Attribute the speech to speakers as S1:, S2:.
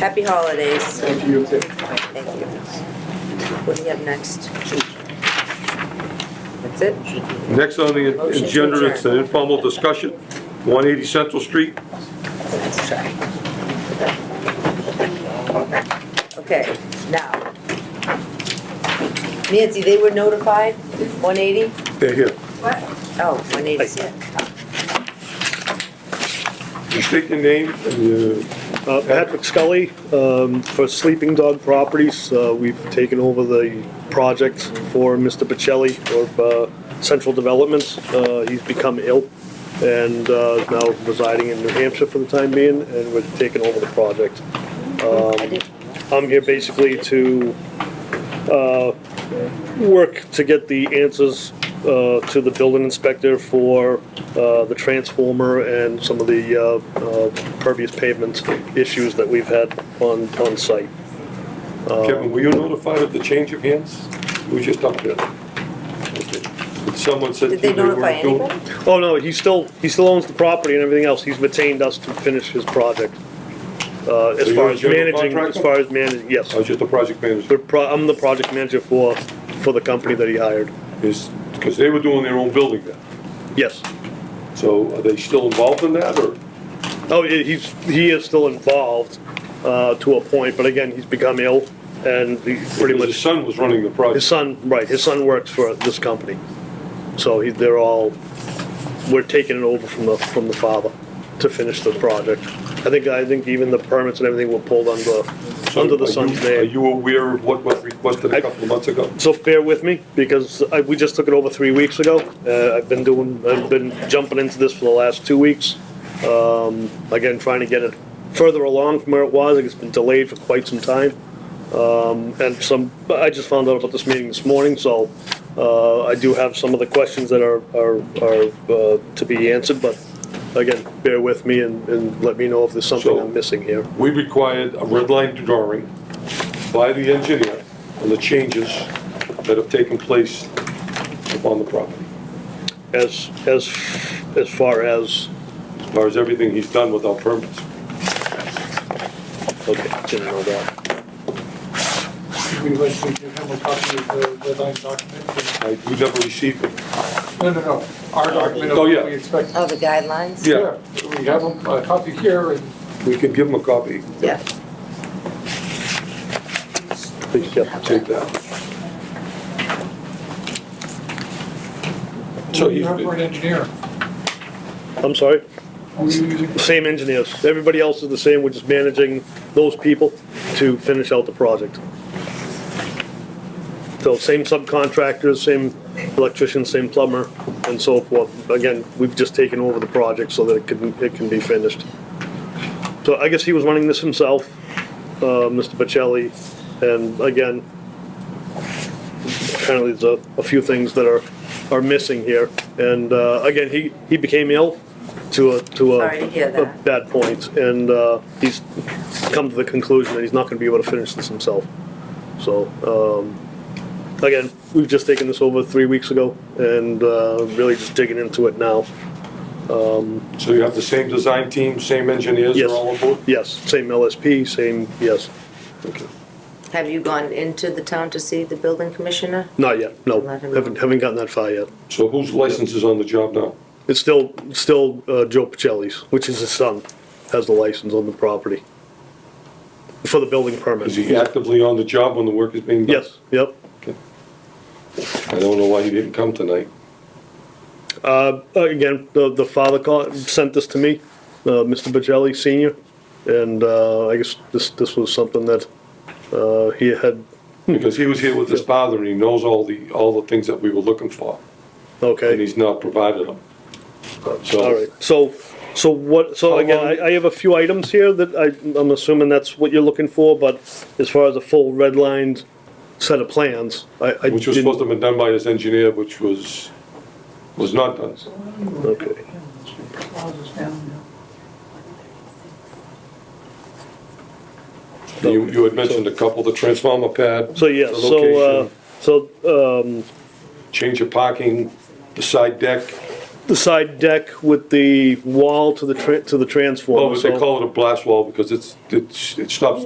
S1: Happy holidays.
S2: Thank you.
S1: Thank you. What do we have next? That's it?
S2: Next on the
S1: Motion to
S2: agenda is an
S1: adjourn.
S2: informal discussion, 180 Central Street.
S1: Let's try. Okay, now. Nancy, they were notified, 180?
S2: They're here.
S1: Oh, 180 is it.
S2: You state your name and uh,
S3: Uh, Patrick Scully, um, for Sleeping Dog Properties, Uh, we've taken over the project for Mr. Pacelli of uh, Central Developments. Uh, He's become ill and uh, is now residing in New Hampshire for the time being, and we're taking over the project. Um,
S1: I did-
S3: I'm here basically to uh, work to get the answers uh, to the building inspector for uh, the transformer and some of the uh, uh, pervious pavement issues that we've had on, on site. Uh,
S2: Kevin, were you notified of the change of hands? We were just up there. Okay. But Someone said to
S1: Did
S2: you
S1: they
S2: they
S1: notify
S2: weren't doing.
S1: anybody?
S3: Oh, no, he still, he still owns the property and everything else, he's retained us to finish his project. Uh, As
S2: you're
S3: far
S2: a
S3: as
S2: general
S3: managing, as
S2: contractor? Oh.
S3: far as managing, yes.
S2: I was just the project
S3: The
S2: manager,
S3: pro- I'm the project manager for, for the company that he hired,
S2: because they were doing their own building then.
S3: yes.
S2: So are they still involved in that, or?
S3: Oh, he- he's, he is still involved uh, to a point, but again, he's become ill and he pretty
S2: His
S3: much,
S2: son was running the
S3: his
S2: project.
S3: son, right, his son works for this company. So he, they're all, we're taking it over from the, from the father to finish the project. I think, I think even the permits and everything were pulled under,
S2: So
S3: under the
S2: are you-
S3: son's
S2: Are
S3: name.
S2: you aware of what was requested a
S3: I-
S2: couple of months ago?
S3: So bear with me because I, we just took it over three weeks ago. Uh, I've been doing, I've been jumping into this for the last two weeks. Um, again, trying to get it further along from where it was. It's been delayed for quite some time. Um, and some, I just found out about this meeting this morning, so, uh, I do have some of the questions that are, are, are, uh, to be answered, but again, bear with me and, and let me know if there's something
S2: So-
S3: I'm missing here.
S2: we required a red line drawing by the engineer on the changes that have taken place upon the property,
S3: As, as, as far as,
S2: as far as everything he's done without permits.
S3: okay, didn't know that.
S4: We would like to give him a copy of the red line document.
S2: I- We never received them.
S4: No, no, no, our document of
S2: Oh,
S4: what
S2: yeah.
S4: we expect.
S1: Oh, the guidelines?
S2: Yeah.
S4: We have a a copy here and
S2: We could give him a copy,
S1: Yeah.
S3: Please, yeah.
S2: take that. So
S4: we
S2: he's,
S4: have for an engineer.
S3: I'm sorry?
S4: Are we using-
S3: Same engineers. Everybody else is the same. We're just managing those people to finish out the project. So same subcontractors, same electrician, same plumber, and so forth. Again, we've just taken over the project so that it can, it can be finished. So I guess he was running this himself, uh, Mr. Bocelli, and again, apparently there's a, a few things that are, are missing here. And, uh, again, he, he became ill to a, to a.
S1: Sorry to hear
S3: a
S1: that.
S3: Bad point, and, uh, he's come to the conclusion that he's not gonna be able to finish this himself. So, um, again, we've just taken this over three weeks ago and, uh, really just digging into it now. Um,
S2: so you have the same design team, same engineers, they're
S3: Yes.
S2: all on board?
S3: Yes, same LSP, same, yes,
S2: Okay.
S1: Have you gone into the town to see the building commissioner?
S3: not yet, no,
S1: Let him
S3: haven't,
S1: know.
S3: haven't gotten that far yet.
S2: So whose license is on the job now?
S3: It's still, still uh, Joe Pacelli's, which is his son, has the license on the property for the building
S2: Is
S3: permit.
S2: he actively on the job when the work is being done?
S3: Yes, yep.
S2: I don't know why he didn't come tonight.
S3: Uh, Again, the, the father called, sent this to me, uh, Mr. Pacelli Senior, and uh, I guess this, this was something that uh, he had,
S2: Because he was here with his father and he knows all the, all the things that we were looking for,
S3: okay.
S2: and he's not provided them.
S3: All
S2: So,
S3: right, so, so what, so
S2: How
S3: again,
S2: long-
S3: I, I have a few items here that I, I'm assuming that's what you're looking for, but as far as a full red lined set of plans, I, I
S2: which was supposed to
S3: didn't.
S2: have been done by his engineer, which was, was not done.
S3: Okay.
S4: Oh,
S2: You, you had mentioned a couple, the transformer pad.
S3: So, yeah,
S2: the
S3: so, uh,
S2: location,
S3: so, um,
S2: Change of parking, the side deck,
S3: the side deck with the wall to the, tra- to the transformer.
S2: oh, but they
S3: so-
S2: call it a blast wall because it's, it's, it stops